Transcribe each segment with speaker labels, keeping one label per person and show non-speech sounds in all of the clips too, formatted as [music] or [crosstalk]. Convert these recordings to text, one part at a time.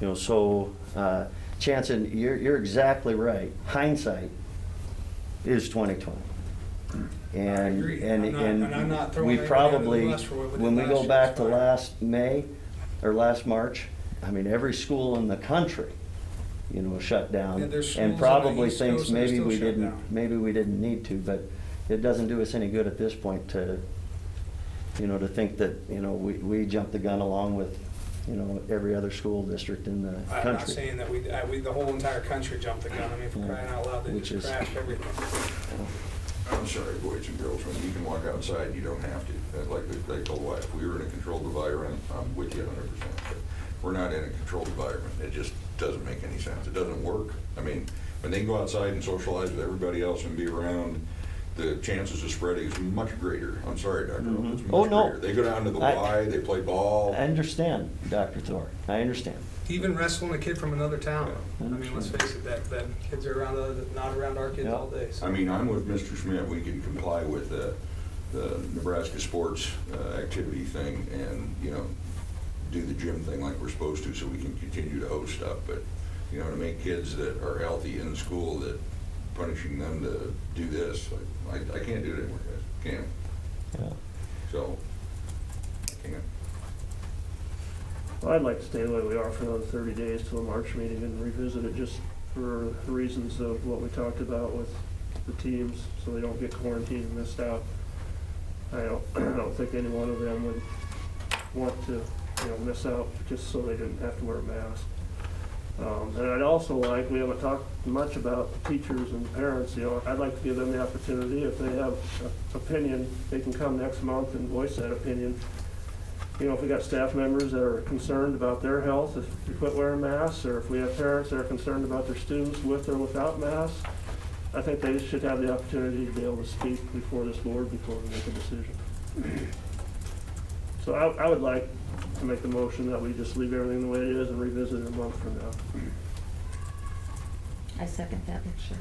Speaker 1: You know, so, uh, Chanson, you're, you're exactly right. Hindsight is twenty twenty. And,
Speaker 2: Hmm. agree.
Speaker 1: and,
Speaker 2: I'm not- and I'm not
Speaker 1: and
Speaker 2: throwing
Speaker 1: we
Speaker 2: anybody under the
Speaker 1: probably,
Speaker 2: bus for what we did
Speaker 1: when we
Speaker 2: last
Speaker 1: go
Speaker 2: year,
Speaker 1: back
Speaker 2: it's
Speaker 1: to
Speaker 2: fine.
Speaker 1: last May, or last March, I mean, every school in the country, you know, shut down.
Speaker 2: Yeah, there's schools on
Speaker 1: And
Speaker 2: the
Speaker 1: probably
Speaker 2: East
Speaker 1: thinks
Speaker 2: Coast that are
Speaker 1: maybe
Speaker 2: still
Speaker 1: we
Speaker 2: shut down.
Speaker 1: didn't, maybe we didn't need to, but it doesn't do us any good at this point to, you know, to think that, you know, we, we jumped the gun along with, you know, every other school district in the country.
Speaker 2: I'm not saying that we, I- we, the whole entire country jumped the gun. I mean, for
Speaker 1: Yeah.
Speaker 2: crying out loud, they
Speaker 1: Which
Speaker 2: just
Speaker 1: is-
Speaker 2: crashed everything.
Speaker 3: I'm sorry, boys and girls, when you can walk outside, you don't have to. That's Like the- they told If we were in a controlled environment, I'm with you hundred percent. But We're not in a controlled environment. It just doesn't make any sense. It doesn't work. I mean, when they go outside and socialize with everybody else and be around, the chances of spreading is much greater. I'm sorry, Dr. Rupp, it's
Speaker 1: Mhm. Oh,
Speaker 3: much
Speaker 1: no.
Speaker 3: greater. They go down to the
Speaker 1: I-
Speaker 3: Y, they play ball.
Speaker 1: I understand, Dr. Thor, I understand.
Speaker 2: Even wrestling a kid from another town. I
Speaker 1: Yeah.
Speaker 2: mean, let's face it, that, that kids are around, other- not around our kids
Speaker 1: Yeah.
Speaker 2: all day. so.
Speaker 3: I mean, I'm with Mr. Schmidt, we can comply with the, the Nebraska sports uh, activity thing and, you know, do the gym thing like we're supposed to, so we can continue to host stuff, but, you know, to make kids that are healthy in school, that punishing them to do this, like, I, I can't do it anymore, guys, can't,
Speaker 1: Yeah.
Speaker 3: so, can't.
Speaker 4: Well, I'd like to stay the way we are for another thirty days till the March meeting and revisit it just for the reasons of what we talked about with the teams, so they don't get quarantined and missed out. I don't, [clears throat] I don't think any one of them would want to, you know, miss out just so they didn't have to wear a mask. Um, and I'd also like, we haven't talked much about teachers and parents, you know, I'd like to give them the opportunity, if they have an opinion, they can come next month and voice that opinion you know, if we got staff members that are concerned about their health, if we quit wearing masks, or if we have parents that are concerned about their students with or without masks, I think they should have the opportunity to be able to speak before this board, before we make a decision. So I, I would like to make the motion that we just leave everything the way it is and revisit it a month from now.
Speaker 5: I second that, sure.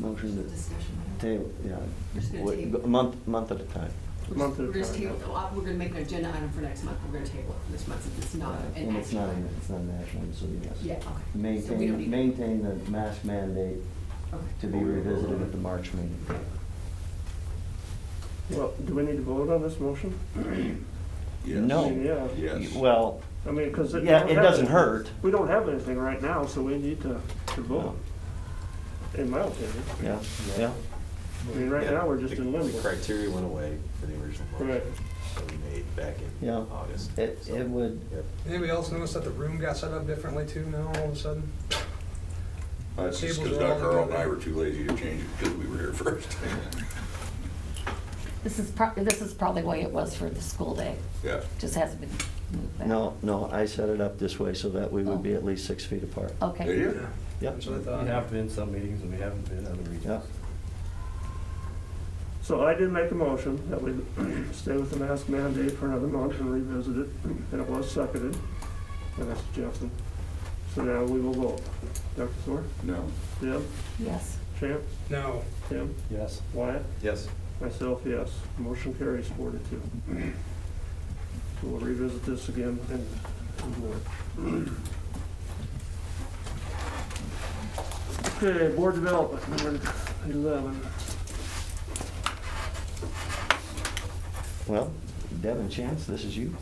Speaker 1: Motion to
Speaker 6: Discussion.
Speaker 1: table, yeah,
Speaker 6: Just gonna
Speaker 1: Wait,
Speaker 6: table.
Speaker 1: a month, month at a time.
Speaker 6: We're
Speaker 4: Month
Speaker 6: just-
Speaker 4: at a
Speaker 6: we're just
Speaker 4: time.
Speaker 6: table, well, we're gonna make an agenda item for next month, we're gonna table it for this month, if it's not an
Speaker 1: Uh, And it's
Speaker 6: action
Speaker 1: not,
Speaker 6: item.
Speaker 1: it's not national, so yes.
Speaker 6: Yeah, okay. So we
Speaker 1: Maintain,
Speaker 6: don't need-
Speaker 1: maintain the mask mandate
Speaker 6: Okay.
Speaker 1: to be revisited at the March meeting.
Speaker 4: Well, do we need to vote on this motion?
Speaker 3: Yes.
Speaker 1: No.
Speaker 4: Yeah.
Speaker 3: Yes.
Speaker 1: Well,
Speaker 4: I mean, because.
Speaker 1: yeah, it doesn't hurt,
Speaker 4: We don't have anything right now, so we need to, to vote, in my opinion.
Speaker 1: yeah, yeah.
Speaker 4: I mean, right now, we're just
Speaker 7: The-
Speaker 4: in limbo.
Speaker 7: The criteria went away for the original
Speaker 4: Right.
Speaker 7: motion that we made back in
Speaker 1: Yeah.
Speaker 7: August.
Speaker 1: It,
Speaker 7: So-
Speaker 1: it would,
Speaker 7: Yep.
Speaker 2: Anybody else notice that the room got set up differently too now, all of a sudden?
Speaker 3: That's just
Speaker 2: Tables
Speaker 3: because
Speaker 2: are all
Speaker 3: Dr. Earl and I
Speaker 2: together.
Speaker 3: were too lazy to change it because we were here [laughs] first.
Speaker 5: This is prob, this is probably the way it was for the school day,
Speaker 3: Yeah.
Speaker 5: just hasn't been moved back.
Speaker 1: no, no, I set it up this way so that we
Speaker 6: Oh.
Speaker 1: would be at least six feet apart.
Speaker 3: There
Speaker 5: Okay,
Speaker 3: you
Speaker 2: Yeah.
Speaker 3: go.
Speaker 1: Yep.
Speaker 2: That's what
Speaker 8: Uh,
Speaker 2: I
Speaker 8: We
Speaker 2: thought.
Speaker 8: have been some meetings and we haven't been other
Speaker 1: Yeah.
Speaker 8: meetings.
Speaker 4: So I did make a motion that we [clears throat] stay with the mask mandate for another month and revisit it, and it was seconded, and that's Justin. So now we will vote. Dr. Thor,
Speaker 3: No.
Speaker 4: Deb,
Speaker 5: yes.
Speaker 4: Chance,
Speaker 2: No,
Speaker 4: Tim,
Speaker 8: Yes.
Speaker 4: Wyatt,
Speaker 7: Yes.
Speaker 4: myself, yes. Motion carries four to two. So we'll revisit this again in, in March. Okay, board development, number eleven.
Speaker 1: Well, Devin Chance, this is you.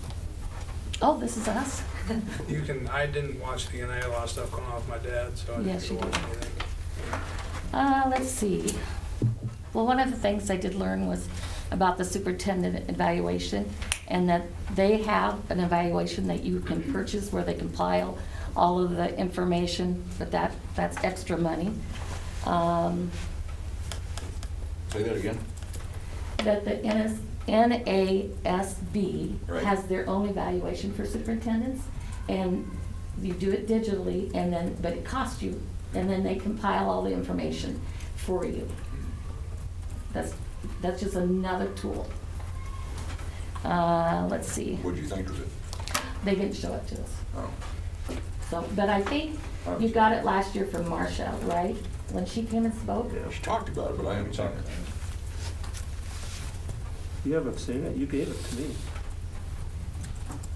Speaker 5: Oh, this is us? [laughs]
Speaker 2: you can, I didn't watch the, and I had a lot of stuff going on with my dad, so I didn't
Speaker 5: Yes,
Speaker 2: get to
Speaker 5: you
Speaker 2: watch
Speaker 5: did.
Speaker 2: anything.
Speaker 5: Uh, let's see. Well, one of the things I did learn was about the superintendent evaluation and that they have an evaluation that you can purchase where they compile all of the information, but that, that's extra money. Um,
Speaker 3: Say that again.
Speaker 5: that the NS NASB
Speaker 3: Right.
Speaker 5: has their own evaluation for superintendents, and you do it digitally, and then, but it costs you, and then they compile all the information for you. That's, that's just another tool. Uh, let's see,
Speaker 3: What'd you think of it?
Speaker 5: they didn't show it to us,
Speaker 3: Oh.
Speaker 5: so, but I think you got it last year from Marcia, right? When she came and spoke?
Speaker 4: Yeah.
Speaker 3: She talked about it, but I haven't seen it.
Speaker 4: You haven't seen it, you gave it to me.